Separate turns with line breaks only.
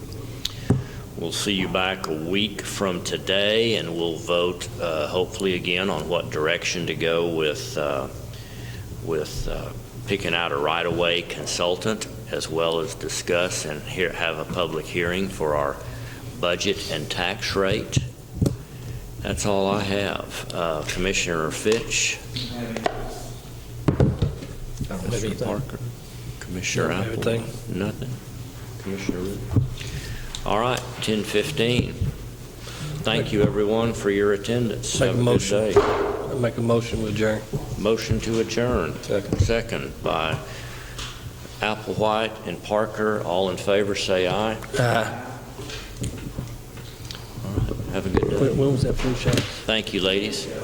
We'll see you back a week from today, and we'll vote uh, hopefully again on what direction to go with, uh, with uh, picking out a right-of-way consultant, as well as discuss and hear- have a public hearing for our budget and tax rate. That's all I have. Uh, Commissioner Fitch? Mr. Parker? Commissioner
No,
Apple?
everything.
Nothing? Commissioner Root? All right, 10:15. Thank you, everyone, for your attendance.
Make a
Have a good
motion.
day.
Make a motion with Jerry.
Motion to adjourn.
Second.
Second by Applewhite and Parker. All in favor, say aye.
Uh,
Have a good day.
When was that flu shot?
Thank you, ladies.